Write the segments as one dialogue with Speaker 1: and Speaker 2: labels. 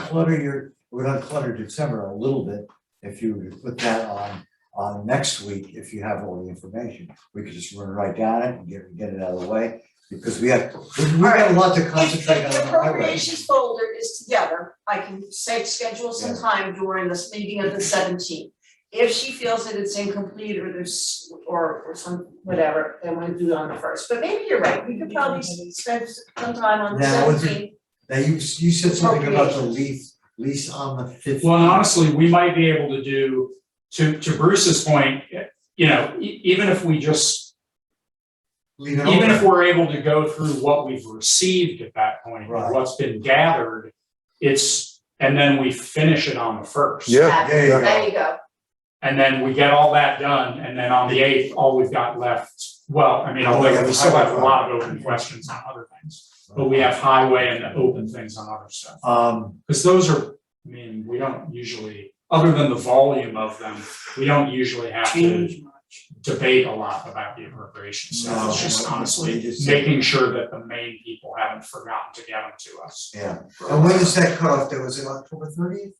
Speaker 1: clutter your, would unclutter December a little bit if you were to put that on, on next week, if you have all the information. We could just run right down it and get, get it out of the way, because we have, we we got a lot to
Speaker 2: If
Speaker 1: concentrate
Speaker 2: if
Speaker 1: on
Speaker 2: the
Speaker 1: the highway.
Speaker 2: appropriations folder is together, I can say schedule some time during this meeting of the seventeenth. If she feels that it's incomplete or there's, or or some, whatever, then we'll do it on the first, but maybe you're right, we could probably s- spend some time on the
Speaker 1: Yeah, I would
Speaker 2: seventeenth.
Speaker 1: think- Now, you, you said something about the lease, lease on the fifteenth.
Speaker 3: Well, and honestly, we might be able to do, to, to Bruce's point, you know, e- even if we just,
Speaker 1: Leave it
Speaker 3: even if
Speaker 1: open,
Speaker 3: we're able to go through what we've received at that point,
Speaker 1: Right.
Speaker 3: what's been gathered, it's, and then we finish it on the first.
Speaker 4: Yeah.
Speaker 1: there you go.
Speaker 2: There you go,
Speaker 3: And then we get all that done, and then on the eighth, all we've got left, well, I mean,
Speaker 1: Oh, we
Speaker 3: although
Speaker 1: have
Speaker 3: we still have a
Speaker 1: highway.
Speaker 3: lot of open questions on other things. But we have highway and open things on other stuff.
Speaker 1: Um,
Speaker 3: Because those are, I mean, we don't usually, other than the volume of them, we don't usually have to debate a lot about the appropriations. So
Speaker 1: No,
Speaker 3: it's just
Speaker 1: we- we
Speaker 3: honestly
Speaker 1: just-
Speaker 3: making sure that the main people haven't forgotten to get them to us.
Speaker 1: yeah, and when is that cutoff, that was it October thirtieth?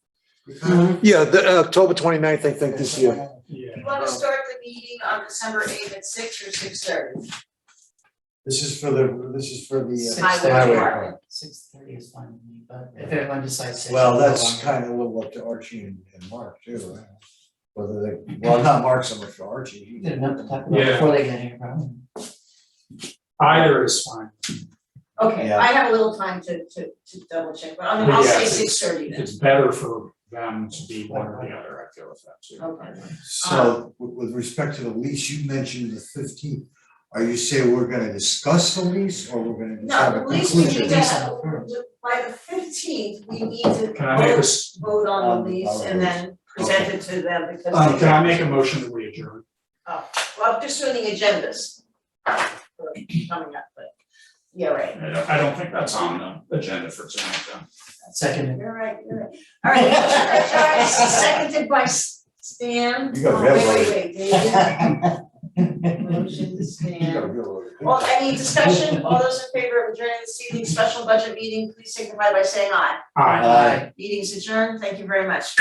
Speaker 3: Mm-hmm.
Speaker 4: Yeah, the, uh, October 29th, I think, this year.
Speaker 3: Yeah.
Speaker 2: you wanna start the meeting on December eighth at six or six thirty?
Speaker 1: This is for the, this is for the uh,
Speaker 2: Highway
Speaker 1: highway
Speaker 2: department.
Speaker 1: part.
Speaker 5: Six thirty is fine with me, but if everyone decides six.
Speaker 1: Well, that's kind of a little up to Archie and, and Mark too, right? whether they, well, not Mark so much, Archie. he-
Speaker 5: Good enough to talk about
Speaker 3: Yeah.
Speaker 5: before they get here, probably.
Speaker 3: Either is fine.
Speaker 2: Okay,
Speaker 1: Yeah.
Speaker 2: I have a little time to to to double check, but I mean, I'll
Speaker 3: Yeah,
Speaker 2: say
Speaker 3: it's-
Speaker 2: six thirty then,
Speaker 3: It's better for them to be one or the other, I feel with that too.
Speaker 2: okay.
Speaker 1: So with, with respect to the lease, you mentioned the fifteenth. Are you saying we're gonna discuss the lease or we're gonna just have
Speaker 2: No,
Speaker 1: a
Speaker 2: at least we
Speaker 1: conclusion?
Speaker 2: need to have, by the fifteenth, we need to
Speaker 3: Can I make a,
Speaker 2: vote,
Speaker 3: s-
Speaker 2: vote on the
Speaker 1: Um,
Speaker 2: lease and then present it to them because
Speaker 3: um,
Speaker 2: they,
Speaker 3: can I make a motion that we adjourn?
Speaker 2: well, I'm just doing the agendas. for Coming up, but, yeah, right,
Speaker 3: I don't, I don't think that's on the agenda for tonight though.
Speaker 5: Second.
Speaker 2: you're right, you're right. All right, motion by Joyce, seconded by S- Stan.
Speaker 1: You got
Speaker 2: Oh, wait,
Speaker 1: red
Speaker 2: Wait, wait, David, motion, Stan. Well, any discussion, all those in favor of adjourning this evening's special budget meeting, please signify by saying aye.
Speaker 3: Aye.
Speaker 1: Aye.
Speaker 2: Meeting's adjourned, thank you very much.